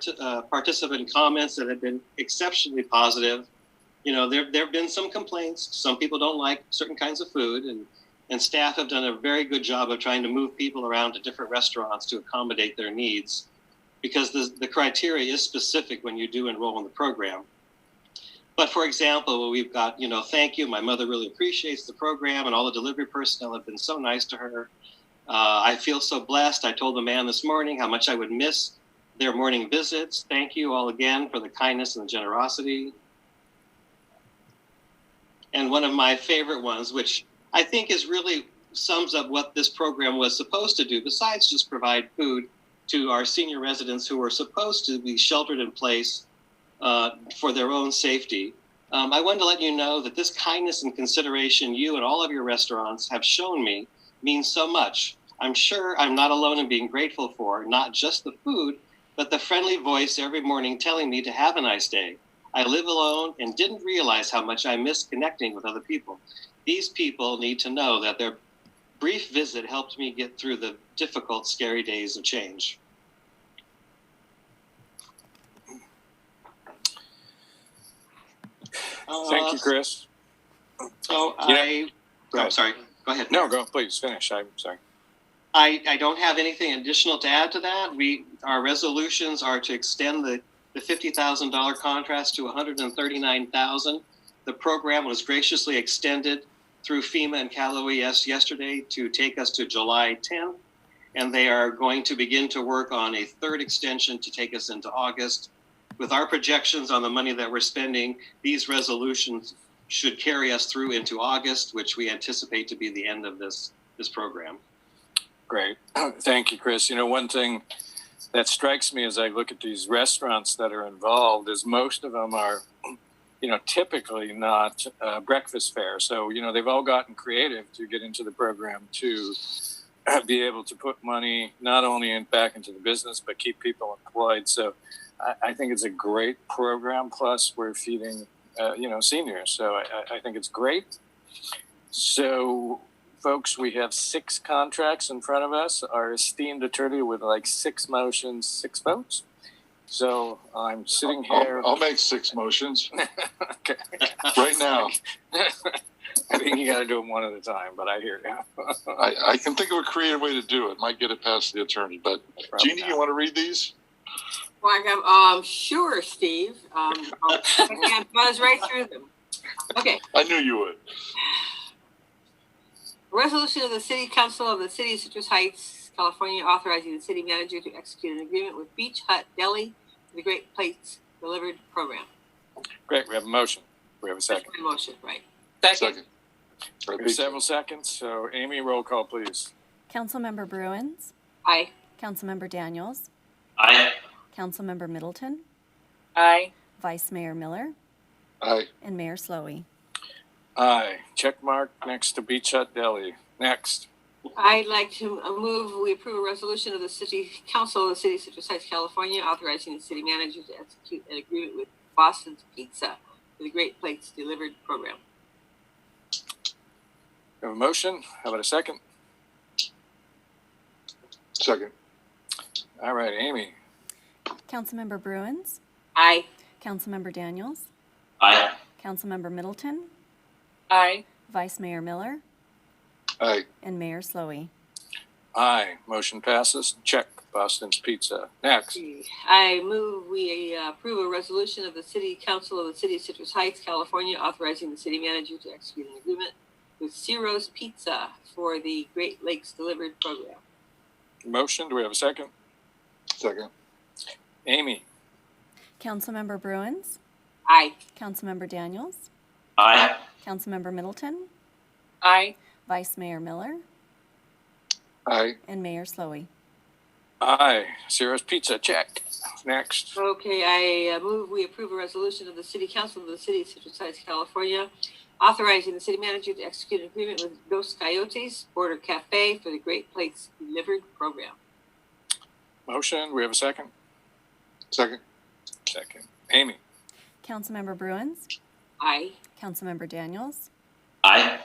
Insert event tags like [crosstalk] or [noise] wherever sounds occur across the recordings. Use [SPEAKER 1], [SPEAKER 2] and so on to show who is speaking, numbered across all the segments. [SPEAKER 1] t- uh, participant comments that have been exceptionally positive. You know, there there have been some complaints. Some people don't like certain kinds of food, and and staff have done a very good job of trying to move people around to different restaurants to accommodate their needs, because the the criteria is specific when you do enroll in the program. But for example, we've got you know, thank you. My mother really appreciates the program, and all the delivery personnel have been so nice to her. Uh, I feel so blessed. I told the man this morning how much I would miss their morning visits. Thank you all again for the kindness and the generosity. And one of my favorite ones, which I think is really sums up what this program was supposed to do, besides just provide food to our senior residents who were supposed to be sheltered in place uh, for their own safety. Um, I wanted to let you know that this kindness and consideration you and all of your restaurants have shown me means so much. I'm sure I'm not alone in being grateful for not just the food, but the friendly voice every morning telling me to have a nice day. I live alone and didn't realize how much I miss connecting with other people. These people need to know that their brief visit helped me get through the difficult, scary days of change.
[SPEAKER 2] Thank you,
[SPEAKER 1] Uh,
[SPEAKER 2] Chris.
[SPEAKER 1] So
[SPEAKER 2] You know-
[SPEAKER 1] I,
[SPEAKER 2] Go
[SPEAKER 1] oh,
[SPEAKER 2] ahead.
[SPEAKER 1] sorry, go ahead.
[SPEAKER 2] No, go, please, finish. I'm sorry.
[SPEAKER 1] I, I don't have anything additional to add to that. We, our resolutions are to extend the, the fifty thousand dollar contrast to $139,000. The program was graciously extended through FEMA and Cal OES yesterday to take us to July tenth. And they are going to begin to work on a third extension to take us into August. With our projections on the money that we're spending, these resolutions should carry us through into August, which we anticipate to be the end of this, this program.
[SPEAKER 2] Great. [clears throat] Thank you, Chris. You know, one thing that strikes me as I look at these restaurants that are involved is most of them are, you know, typically not uh, breakfast fare. So, you know, they've all gotten creative to get into the program to [clears throat] be able to put money not only in, back into the business, but keep people employed. So I, I think it's a great program. Plus, we're feeding, uh, you know, seniors. So I, I- I think it's great. So folks, we have six contracts in front of us. Our esteemed attorney with like six motions, six votes. So I'm sitting here.
[SPEAKER 3] I'll, I'll make six motions
[SPEAKER 2] [laughs] Okay.
[SPEAKER 3] right now.
[SPEAKER 2] I think you got to do them one at a time, but I hear you.
[SPEAKER 3] I, I can think of a creative way to do it. Might get it past the attorney, but Jeannie, you want to read these?
[SPEAKER 4] Well, I got, um, sure, Steve. Um, I'll- I can't buzz right through them. Okay,
[SPEAKER 3] I knew you would.
[SPEAKER 4] resolution of the City Council of the City of Citrus Heights, California, authorizing the city manager to execute an agreement with Beach Hut Deli for the Great Plates Delivered Program.
[SPEAKER 2] Great. We have a motion. We have a
[SPEAKER 4] That's
[SPEAKER 2] second.
[SPEAKER 4] my motion, right?
[SPEAKER 3] Second. I
[SPEAKER 2] We have
[SPEAKER 3] think so.
[SPEAKER 2] several seconds. So Amy, roll call, please.
[SPEAKER 5] Councilmember Bruins,
[SPEAKER 4] Aye.
[SPEAKER 5] Councilmember Daniels,
[SPEAKER 1] Aye.
[SPEAKER 5] Councilmember Middleton,
[SPEAKER 6] Aye.
[SPEAKER 5] Vice Mayor Miller,
[SPEAKER 3] Aye.
[SPEAKER 5] and Mayor Slowey.
[SPEAKER 2] Aye. Check mark next to Beach Hut Deli. Next.
[SPEAKER 4] I'd like to uh, move, we approve a resolution of the City Council of the City of Citrus Heights, California, authorizing the city manager to execute an agreement with Boston's Pizza for the Great Plates Delivered Program.
[SPEAKER 2] We have a motion. How about a second?
[SPEAKER 3] Second.
[SPEAKER 2] All right, Amy.
[SPEAKER 5] Councilmember Bruins,
[SPEAKER 4] Aye.
[SPEAKER 5] Councilmember Daniels,
[SPEAKER 1] Aye.
[SPEAKER 5] Councilmember Middleton,
[SPEAKER 6] Aye.
[SPEAKER 5] Vice Mayor Miller,
[SPEAKER 3] Aye.
[SPEAKER 5] and Mayor Slowey.
[SPEAKER 2] Aye. Motion passes. Check Boston's Pizza. Next.
[SPEAKER 4] I move we uh, approve a resolution of the City Council of the City of Citrus Heights, California, authorizing the city manager to execute an agreement with Ciro's Pizza for the Great Lakes Delivered Program.
[SPEAKER 2] Motion. Do we have a second?
[SPEAKER 3] Second.
[SPEAKER 2] Amy.
[SPEAKER 5] Councilmember Bruins,
[SPEAKER 4] Aye.
[SPEAKER 5] Councilmember Daniels,
[SPEAKER 1] Aye.
[SPEAKER 5] Councilmember Middleton,
[SPEAKER 6] Aye.
[SPEAKER 5] Vice Mayor Miller,
[SPEAKER 3] Aye.
[SPEAKER 5] and Mayor Slowey.
[SPEAKER 2] Aye. Sarah's Pizza. Check. Next.
[SPEAKER 4] Okay, I uh, move we approve a resolution of the City Council of the City of Citrus Heights, California, authorizing the city manager to execute an agreement with Dos Coyotes Border Cafe for the Great Lakes Delivered Program.
[SPEAKER 2] Motion. Do we have a second?
[SPEAKER 3] Second.
[SPEAKER 2] Second. Amy.
[SPEAKER 5] Councilmember Bruins,
[SPEAKER 4] Aye.
[SPEAKER 5] Councilmember Daniels,
[SPEAKER 1] Aye.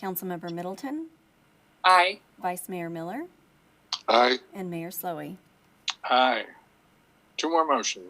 [SPEAKER 5] Councilmember Middleton,
[SPEAKER 6] Aye.
[SPEAKER 5] Vice Mayor Miller,
[SPEAKER 3] Aye.
[SPEAKER 5] and Mayor Slowey.
[SPEAKER 2] Aye. Two more motions.